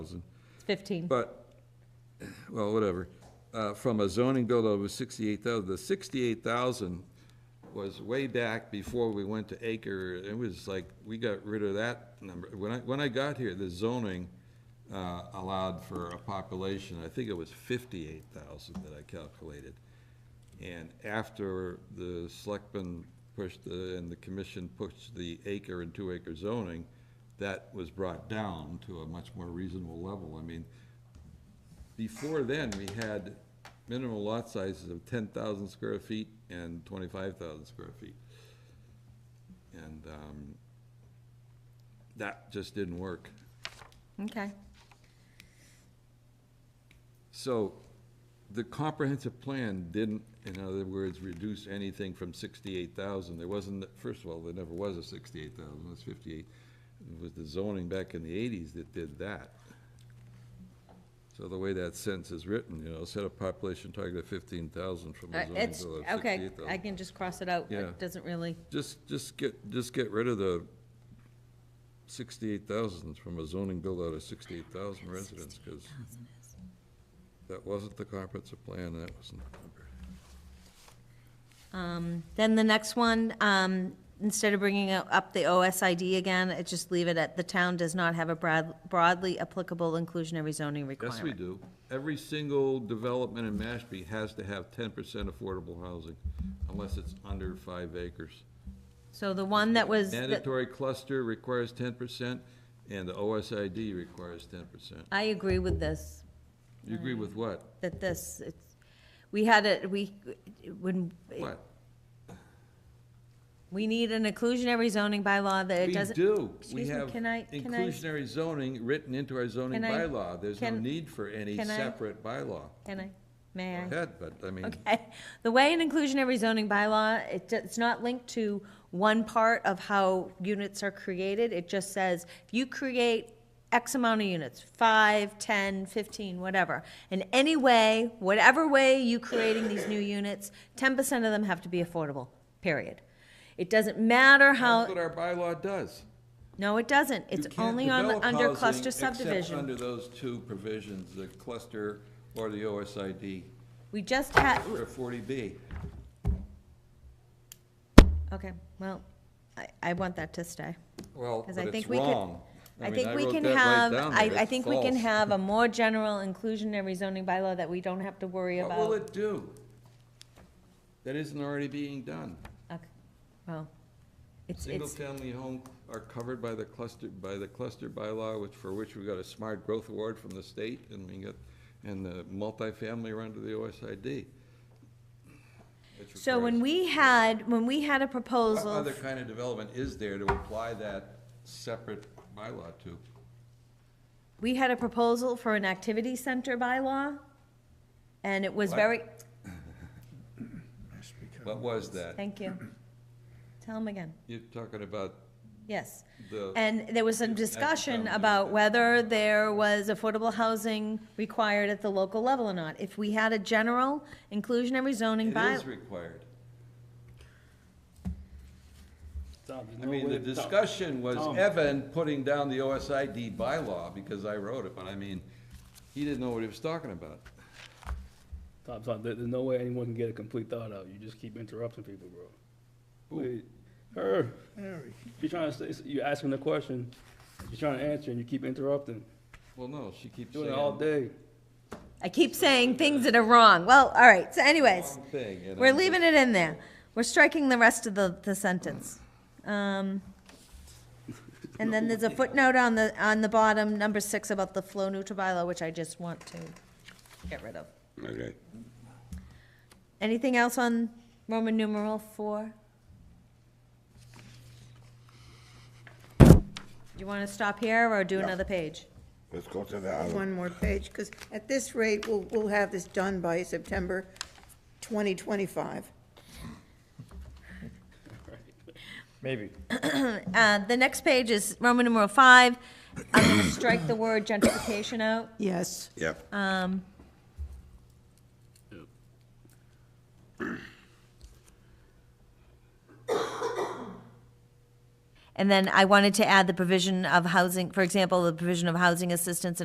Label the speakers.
Speaker 1: thousand.
Speaker 2: Fifteen.
Speaker 1: But, well, whatever, uh, from a zoning bill that was sixty-eight thousand, the sixty-eight thousand was way back before we went to acre, it was like, we got rid of that number. When I, when I got here, the zoning, uh, allowed for a population, I think it was fifty-eight thousand that I calculated. And after the selectmen pushed the, and the commission pushed the acre and two acre zoning, that was brought down to a much more reasonable level. I mean, before then, we had minimum lot sizes of ten thousand square feet and twenty-five thousand square feet. And, um, that just didn't work.
Speaker 2: Okay.
Speaker 1: So, the comprehensive plan didn't, in other words, reduce anything from sixty-eight thousand, there wasn't, first of all, there never was a sixty-eight thousand, it was fifty-eight. It was the zoning back in the eighties that did that. So the way that sentence is written, you know, set a population target of fifteen thousand from a
Speaker 2: Uh,
Speaker 1: zoning bill of
Speaker 2: It's,
Speaker 1: sixty-eight thousand.
Speaker 2: okay, I can just cross it out.
Speaker 1: Yeah.
Speaker 2: It doesn't really,
Speaker 1: Just, just get, just get rid of the sixty-eight thousand from a zoning build-out of sixty-eight thousand residents, because that wasn't the comprehensive plan, that wasn't the number.
Speaker 2: then the next one, um, instead of bringing it up the OSID again, it just leave it at, the town does not have a broad, broadly applicable inclusionary zoning requirement.
Speaker 1: Yes, we do. Every single development in Mashpee has to have ten percent affordable housing, unless it's under five acres.
Speaker 2: So the one that was, that-
Speaker 1: Mandatory cluster requires ten percent, and the OSID requires ten percent.
Speaker 2: I agree with this,
Speaker 1: You agree with what?
Speaker 2: that this, it's, we had it, we, when,
Speaker 1: What?
Speaker 2: we need an inclusionary zoning bylaw that it
Speaker 1: We
Speaker 2: doesn't.
Speaker 1: do. We
Speaker 2: Excuse me,
Speaker 1: have
Speaker 2: can I- can I-
Speaker 1: inclusionary zoning written into our zoning
Speaker 2: Can I-
Speaker 1: bylaw. There's no
Speaker 2: can-
Speaker 1: need for any
Speaker 2: can I-
Speaker 1: separate bylaw.
Speaker 2: Can I, may I?
Speaker 1: Head, but, I mean,
Speaker 2: Okay, the way an inclusionary zoning bylaw, it, d- it's not linked to one part of how units are created, it just says, if you create X amount of units, five, ten, fifteen, whatever, in any way, whatever way you creating these new units, ten percent of them have to be affordable, period. It doesn't matter
Speaker 1: that's
Speaker 2: how,
Speaker 1: what our bylaw does.
Speaker 2: no, it doesn't,
Speaker 1: You
Speaker 2: it's
Speaker 1: can't
Speaker 2: only on, the-
Speaker 1: develop
Speaker 2: under
Speaker 1: housing
Speaker 2: cluster
Speaker 1: except
Speaker 2: subdivision.
Speaker 1: under those two provisions, the cluster or the OSID
Speaker 2: We just had,
Speaker 1: or 40B.
Speaker 2: okay, well, I, I want that to stay.
Speaker 1: Well,
Speaker 2: Because
Speaker 1: but
Speaker 2: I think
Speaker 1: it's
Speaker 2: we could-
Speaker 1: wrong.
Speaker 2: I
Speaker 1: mean,
Speaker 2: think we
Speaker 1: wrote
Speaker 2: can
Speaker 1: that right
Speaker 2: have,
Speaker 1: down
Speaker 2: I,
Speaker 1: there.
Speaker 2: I
Speaker 1: It's
Speaker 2: think we can
Speaker 1: false.
Speaker 2: have a more general inclusionary zoning bylaw that we don't have to worry
Speaker 1: What will
Speaker 2: about.
Speaker 1: it do? That isn't already being done.
Speaker 2: Okay, Well, it's, it's,
Speaker 1: Single-family home are covered by the cluster, by the cluster bylaw, which, for which we got a smart growth award from the state, and we got, and the multifamily are under the OSID. which
Speaker 2: so when
Speaker 1: requires-
Speaker 2: we had, when we had a
Speaker 1: What
Speaker 2: proposal,
Speaker 1: other kind of development is there to apply that separate bylaw to?
Speaker 2: we had a proposal for an activity center bylaw, and it was
Speaker 1: What?
Speaker 2: very,
Speaker 1: What was that?
Speaker 2: thank you. Tell him again,
Speaker 1: You're talking about
Speaker 2: yes.
Speaker 1: the.
Speaker 2: And there was some
Speaker 1: That
Speaker 2: discussion
Speaker 1: sounds
Speaker 2: about
Speaker 1: good.
Speaker 2: whether there was affordable housing required at the local level or not. If we had a general inclusionary zoning
Speaker 1: It
Speaker 2: bylaw.
Speaker 1: is required.
Speaker 3: Tom, there's
Speaker 1: I
Speaker 3: no
Speaker 1: mean,
Speaker 3: way-
Speaker 1: the discussion was
Speaker 3: Tom.
Speaker 1: Evan putting down the OSID bylaw because I wrote it, but I mean, he didn't know what he was talking about.
Speaker 3: Tom, Tom, there- there's no way anyone can get a complete thought out. You just keep interrupting people, bro. Wait, Her, you're trying to say, you're asking the question, you're trying to answer, and you keep interrupting.
Speaker 1: Well, no, she keeps
Speaker 3: Doing
Speaker 1: saying.
Speaker 3: it all day.
Speaker 2: I keep saying things that are wrong. Well, all right, so anyways,
Speaker 1: wrong thing, and
Speaker 2: we're
Speaker 1: I'm
Speaker 2: leaving it in there. We're striking the rest of the, the sentence. Um, and then there's a footnote on the, on the bottom, number six, about the flow neutral bylaw, which I just want to get rid of.
Speaker 4: Okay.
Speaker 2: Anything else on Roman numeral four? You wanna stop here or do
Speaker 4: Yeah.
Speaker 2: another page?
Speaker 4: Let's go to the other.
Speaker 5: one more page, because at this rate, we'll, we'll have this done by September 2025.
Speaker 2: Uh, the next page is Roman numeral five. I'm gonna strike the word gentrification out.
Speaker 5: Yes.
Speaker 4: Yep.
Speaker 2: And then I wanted to add the provision of housing, for example, the provision of housing assistance and